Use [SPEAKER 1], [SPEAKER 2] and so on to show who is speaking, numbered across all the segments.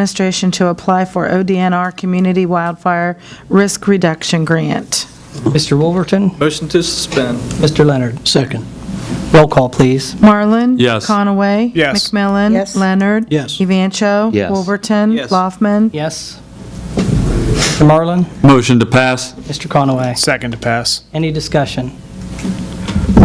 [SPEAKER 1] administration to apply for ODNR Community Wildfire Risk Reduction Grant.
[SPEAKER 2] Mr. Wolverton,
[SPEAKER 3] Motion to suspend.
[SPEAKER 2] Mr. Leonard. Second. Roll call, please.
[SPEAKER 1] Marlin?
[SPEAKER 4] Yes.
[SPEAKER 1] Conaway?
[SPEAKER 3] Yes.
[SPEAKER 1] McMillan?
[SPEAKER 5] Yes.
[SPEAKER 1] Leonard?
[SPEAKER 2] Yes.
[SPEAKER 1] Evancho?
[SPEAKER 6] Yes.
[SPEAKER 1] Wolverton?
[SPEAKER 3] Yes.
[SPEAKER 1] Loffman?
[SPEAKER 2] Yes. Mr. Marlin,
[SPEAKER 4] Motion to pass?
[SPEAKER 2] Mr. Conaway,
[SPEAKER 3] Second to pass.
[SPEAKER 2] any discussion?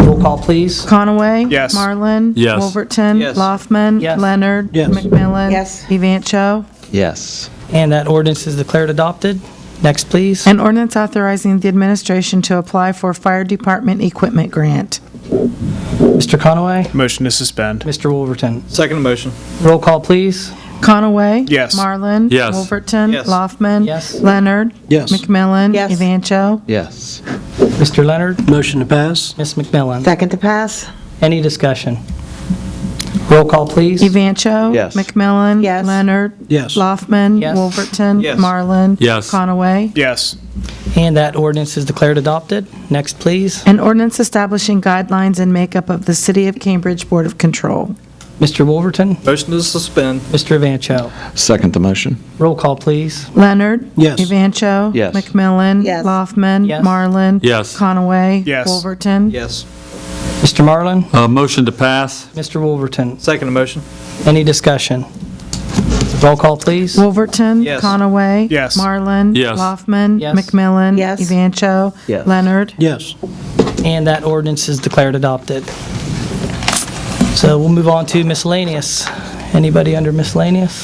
[SPEAKER 2] Roll call, please.
[SPEAKER 1] Conaway?
[SPEAKER 3] Yes.
[SPEAKER 1] Marlin?
[SPEAKER 4] Yes.
[SPEAKER 1] Wolverton?
[SPEAKER 3] Yes.
[SPEAKER 1] Loffman?
[SPEAKER 2] Yes.
[SPEAKER 1] Leonard?
[SPEAKER 2] Yes.
[SPEAKER 1] McMillan?
[SPEAKER 5] Yes.
[SPEAKER 1] Evancho?
[SPEAKER 6] Yes.
[SPEAKER 2] And that ordinance is declared adopted. Next, please.
[SPEAKER 1] An ordinance authorizing the administration to apply for fire department equipment grant.
[SPEAKER 2] Mr. Conaway,
[SPEAKER 7] Motion to suspend.
[SPEAKER 2] Mr. Wolverton.
[SPEAKER 3] Second motion.
[SPEAKER 2] Roll call, please.
[SPEAKER 1] Conaway?
[SPEAKER 7] Yes.
[SPEAKER 1] Marlin?
[SPEAKER 4] Yes.
[SPEAKER 1] Wolverton?
[SPEAKER 3] Yes.
[SPEAKER 1] Loffman?
[SPEAKER 2] Yes.
[SPEAKER 1] Leonard?
[SPEAKER 8] Yes.
[SPEAKER 1] McMillan?
[SPEAKER 5] Yes.
[SPEAKER 1] Evancho?
[SPEAKER 6] Yes.
[SPEAKER 2] Mr. Leonard,
[SPEAKER 8] Motion to pass?
[SPEAKER 2] Ms. McMillan,
[SPEAKER 5] Second to pass?
[SPEAKER 2] any discussion? Roll call, please.
[SPEAKER 1] Evancho?
[SPEAKER 6] Yes.
[SPEAKER 1] McMillan?
[SPEAKER 5] Yes.
[SPEAKER 1] Leonard?
[SPEAKER 8] Yes.
[SPEAKER 1] Loffman?
[SPEAKER 2] Yes.
[SPEAKER 1] Wolverton?
[SPEAKER 3] Yes.
[SPEAKER 1] Marlin?
[SPEAKER 4] Yes.
[SPEAKER 1] Conaway?
[SPEAKER 7] Yes.
[SPEAKER 2] And that ordinance is declared adopted. Next, please.
[SPEAKER 1] An ordinance establishing guidelines and makeup of the City of Cambridge Board of Control.
[SPEAKER 2] Mr. Wolverton,
[SPEAKER 3] Motion to suspend.
[SPEAKER 2] Mr. Vancho.
[SPEAKER 6] Second the motion?
[SPEAKER 2] Roll call, please.
[SPEAKER 1] Leonard?
[SPEAKER 8] Yes.
[SPEAKER 1] Evancho?
[SPEAKER 6] Yes.
[SPEAKER 1] McMillan?
[SPEAKER 5] Yes.
[SPEAKER 1] Loffman?
[SPEAKER 2] Yes.
[SPEAKER 1] Marlin?
[SPEAKER 4] Yes.
[SPEAKER 1] Conaway?
[SPEAKER 7] Yes.
[SPEAKER 1] Wolverton?
[SPEAKER 3] Yes.
[SPEAKER 2] Mr. Marlin,
[SPEAKER 4] Uh, motion to pass?
[SPEAKER 2] Mr. Wolverton,
[SPEAKER 3] Second motion.
[SPEAKER 2] any discussion? Roll call, please.
[SPEAKER 1] Wolverton?
[SPEAKER 3] Yes.
[SPEAKER 1] Conaway?
[SPEAKER 7] Yes.
[SPEAKER 1] Marlin?
[SPEAKER 4] Yes.
[SPEAKER 1] Loffman?
[SPEAKER 2] Yes.
[SPEAKER 1] McMillan?
[SPEAKER 5] Yes.
[SPEAKER 1] Evancho?
[SPEAKER 6] Yes.
[SPEAKER 1] Leonard?
[SPEAKER 8] Yes.
[SPEAKER 2] And that ordinance is declared adopted. So we'll move on to miscellaneous. Anybody under miscellaneous?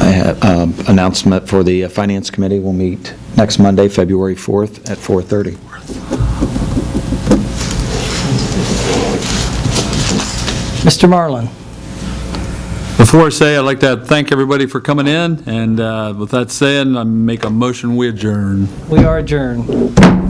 [SPEAKER 6] I have um, announcement for the uh, Finance Committee. We'll meet next Monday, February 4th at 4:30.
[SPEAKER 2] Mr. Marlin,
[SPEAKER 4] Before I say, I'd like to thank everybody for coming in, and uh, with that said, I make a motion, we adjourn.
[SPEAKER 2] we are adjourned.